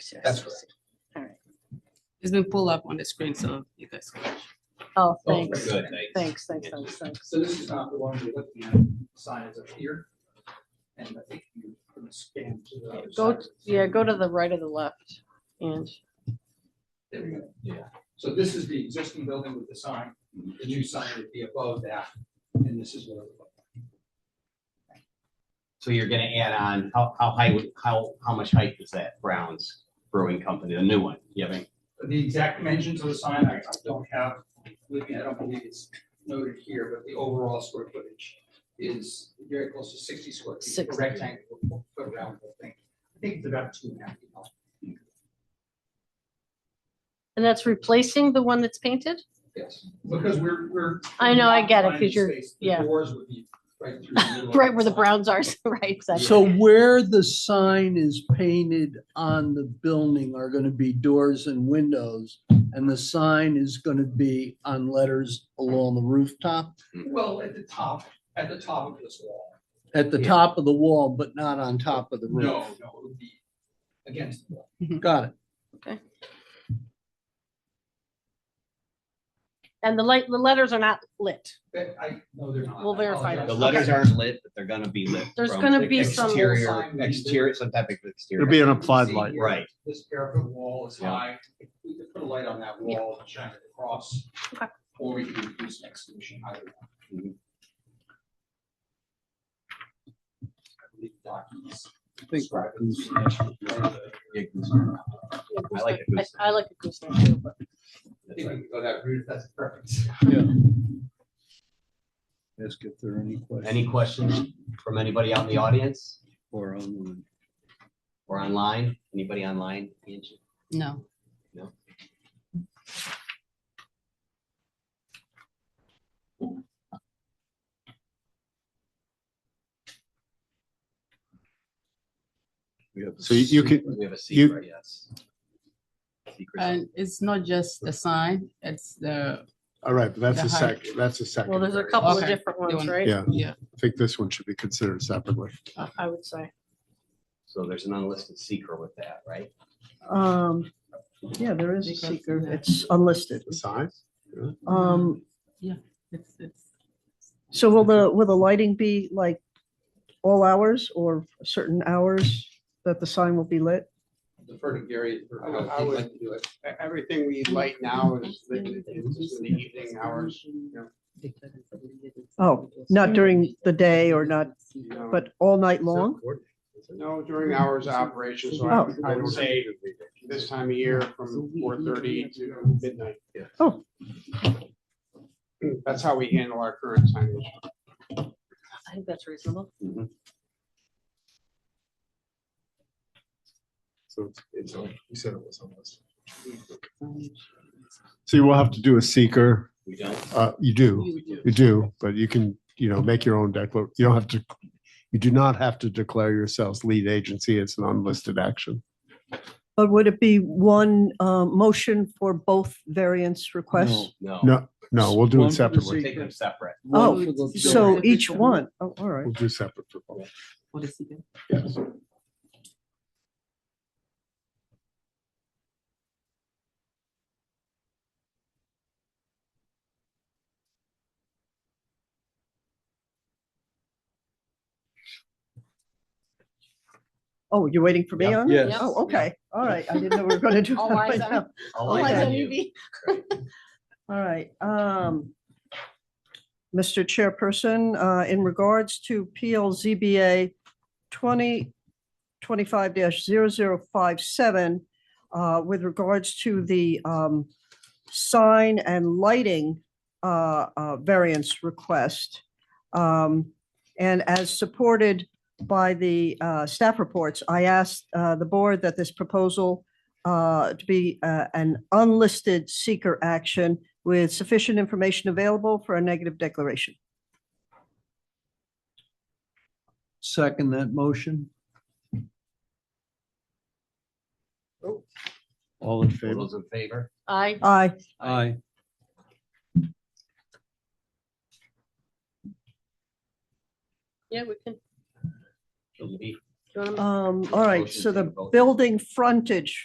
Sure. That's correct. It's been pulled up on the screen, so you guys. can- Oh, Oh, thanks, good, thanks, thanks, thanks, thanks. So this is not the one we're looking at, sign is up here. And I think you can scan to the other Go, side. yeah, go to the right or the left, and There we go. Yeah. So this is the existing building with the sign, the new sign would be above that, and this is what it would look like. So you're gonna add on, how, how high, would- how, how much height is that Brown's Brewing Company, the new one? You have any? The exact dimensions of the sign, I I don't have, with me. I don't believe it's noted here, but the overall square footage is very close to sixty square feet, a 60. rectangle, a round thing. I think it's about two and a half feet long. and that's replacing the one that's painted? Yes, because we're, we're. I know, I get it, we're 'cause you're- finding space. The yeah. Doors would be right through the middle. of Right where the sign. browns are, so right, exactly. So where the sign is painted on the building are gonna be doors and windows, and the sign is gonna be on letters along the rooftop, Well, at the top, at the top of this wall. at the Yeah. top of the wall, but not on top of the No, roof. no, it would be against the wall. Got it. And the light, the letters are not lit. But I, no, they're not. We'll I verify apologize. that. The letters aren't lit, but they're gonna be lit. There's from gonna the be some- Exterior, exterior, some type of exterior. It'll be an You applied see light. here, Right. This parapet wall is Yeah. high. We could put a light on that Yeah. wall and shine it across. Okay. Or we could use next solution, either one. I believe Doc is describing the- Yeah, goose. I like the I goose. I like a gooseneck too, but I think we can go that route, that's perfect. E-, Ask if there are any Any questions from anybody out in the audience or online. or online? Anybody online? Angie? No. We have a So you- you secret- can- We have a you- secret, yes. Secret. Uh, And it's not just the sign, it's the, All right, but that's The a height. sec, that's a second. Well, there's a couple of Okay. different ones, Doing- right? Yeah, yeah, I think this one should be considered separately. I would say. So there's an unlisted secret with that, right? Um, yeah, there is a Because, seeker. yeah. It's unlisted. The size? Um, it's, it's. so will the, will the lighting be like all hours or certain hours that the sign will be lit? Defer to Gary for I would- how I he'd would- like to do it. E- Everything we light now is lit in is in the evening hours, Oh, not during the day or not, you know, but all night long? no, during hours of operation, so I Oh. I would say this time of year from four thirty to midnight. Yeah. Oh. That's how we handle our current signage. I think that's reasonable. So it's- it's, you said it was unlisted. So you will have to do a seeker. We don't. Uh, you do, You do. you do, but you can, you know, make your own declar, you don't have to, you do not have to declare yourselves lead agency. It's an unlisted action. But would it be one, um, motion for both variance requests? No. No, no, we'll do One it for the We're separately. taking them separate. Oh, One for the- So each one, oh, all right. We'll do separate for both. For the secret. Yes. Oh, you're waiting for me Yeah. on it? Yes. Oh, okay. All right. I didn't know we were going to do. All that eyes right on- now. I'll Oh, light I on you. All right, um, Mr. Chairperson, uh, in regards to PLZBA twenty twenty-five 57 uh, with regards to the, um, sign and lighting, uh, uh, variance request. Um, and as supported by the, uh, staff reports, I asked, uh, the board that this proposal, uh, to be, uh, an unlisted seeker action with sufficient information available for a negative declaration. Second that motion. All All in favor? those in favor? I, Aye. Aye. yeah, we can, do It'll be you want to Um, all right, Motion so to the vote. building frontage